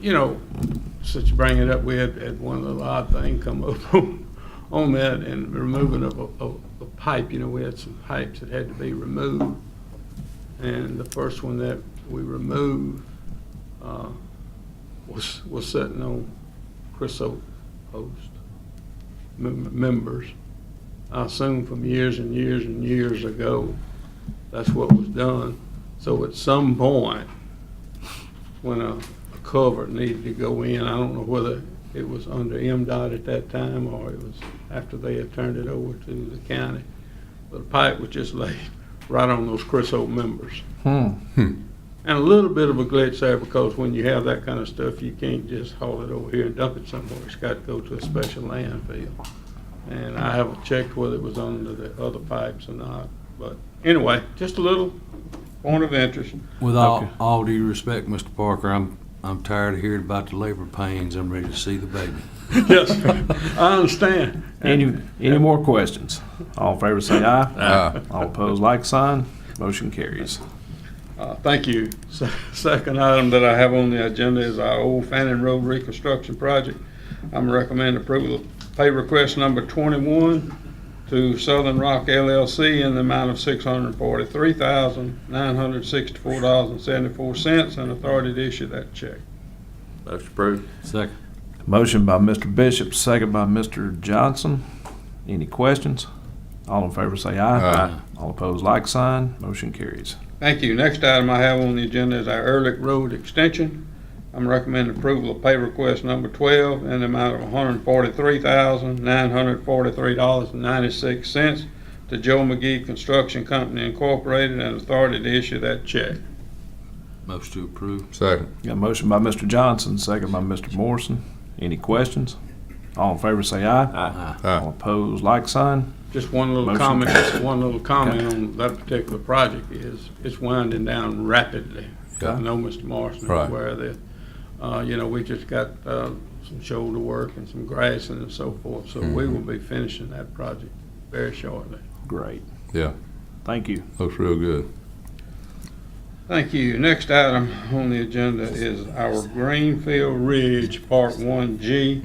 you know, since you bring it up, we had, had one little odd thing come up on, on that and removing of a, of a pipe, you know, we had some pipes that had to be removed. And the first one that we removed, uh, was, was sitting on Chris Oak Post mem- members. I assume from years and years and years ago, that's what was done. So at some point, when a a culvert needed to go in, I don't know whether it was under MDOT at that time or it was after they had turned it over to the county, but the pipe was just laid right on those Chris Oak members. Hmm. And a little bit of a glitch there because when you have that kind of stuff, you can't just haul it over here and dump it somewhere. It's got to go to a special landfill. And I haven't checked whether it was under the other pipes or not. But anyway, just a little point of interest. With all, Okay. all due respect, Mr. Parker, I'm, I'm tired of hearing about the labor pains. I'm ready to see the baby. Yes, I understand. Any, any more questions? All in favor say aye. Aye. All opposed, like sign. Motion carries. Uh, Thank you. Se- Second item that I have on the agenda is our Old Fannin Road Reconstruction Project. I'm recommending approval of pay request number 21 to Southern Rock LLC in the amount of $643,964.74 and authority to issue that check. Motion approved. Second. Motion by Mr. Bishop, second by Mr. Johnson. Any questions? All in favor say aye. Aye. All opposed, like sign. Motion carries. Thank you. Next item I have on the agenda is our Ehrlich Road Extension. I'm recommending approval of pay request number 12 in the amount of $143,943.96 to Joe McGee Construction Company Incorporated and authority to issue that check. Motion to approve. Second. Got a motion by Mr. Johnson, second by Mr. Morrison. Any questions? All in favor say aye. Aye. All opposed, like sign. Just one little Motion. comment, just one little comment on that particular project is, it's winding down rapidly. I Yeah. know Mr. Morrison is Right. aware of that. Uh, you know, we just got, uh, some shoulder work and some grassing and so forth, so we will be finishing that project very shortly. Great. Yeah, Thank you. looks real good. Thank you. Next item on the agenda is our Greenfield Ridge Part One G.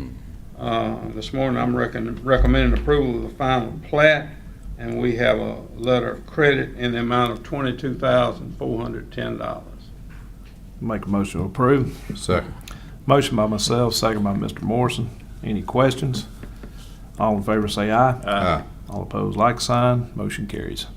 Uh, This morning, I'm recon- recommending approval of the final plat, and we have a letter of credit in the amount of twenty-two thousand, four hundred ten dollars. Make a motion to approve. Second. Motion by myself, second by Mr. Morrison. Any questions? All in favor say aye. Aye. All opposed, like sign. Motion carries.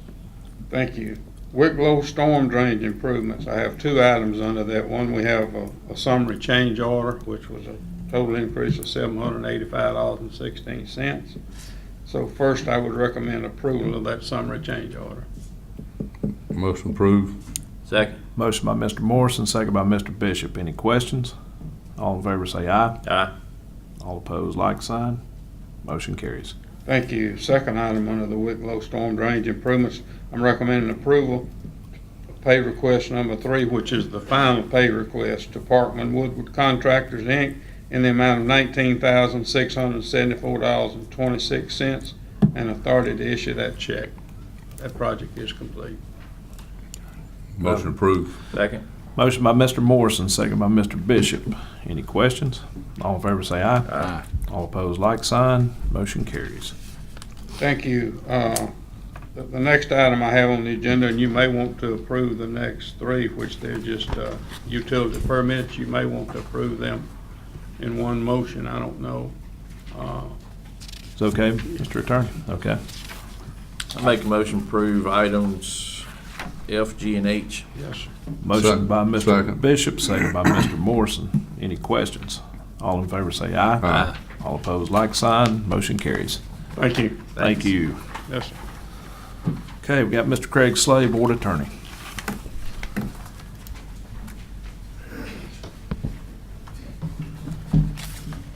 Thank you. Wicklow Storm Drainage Improvements, I have two items under that. One, we have a a summary change order, which was a total increase of seven hundred and eighty-five dollars and sixteen cents. So first, I would recommend approval of that summary change order. Motion approved. Second. Motion by Mr. Morrison, second by Mr. Bishop. Any questions? All in favor say aye. Aye. All opposed, like sign. Motion carries. Thank you. Second item under the Wicklow Storm Drainage Improvements, I'm recommending approval of pay request number three, which is the final pay request to Parkman Woodward Contractors, Inc., in the amount of nineteen thousand, six hundred and seventy-four dollars and twenty-six cents, and authority to issue that check. That project is complete. Motion approved. Second. Motion by Mr. Morrison, second by Mr. Bishop. Any questions? All in favor say aye. Aye. All opposed, like sign. Motion carries. Thank you. Uh, The the next item I have on the agenda, and you may want to approve the next three, which they're just uh, utility permits. You may want to approve them in one motion, I don't know. Uh, It's okay, Mr. Attorney? Okay. I make a motion to approve items F, G, and H. Yes, sir. Motion by Mr. Second. Bishop, second by Mr. Morrison. Any questions? All in favor say aye. Aye. All opposed, like sign. Motion carries. thank you. Thank you. Yes, sir. Okay, we got Mr. Craig Slay, Board Attorney.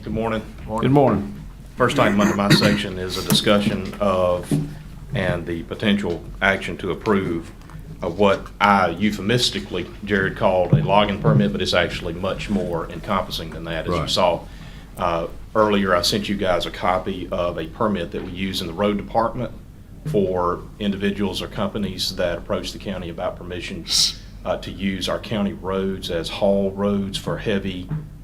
Good morning. Good morning. First item under my section is a discussion of and the potential action to approve of what I euphemistically, Jared, called a logging permit, but it's actually much more encompassing than that, as you Right. saw. Uh, Earlier, I sent you guys a copy of a permit that we use in the road department for individuals or companies that approach the county about permission uh, to use our county roads as haul roads for heavy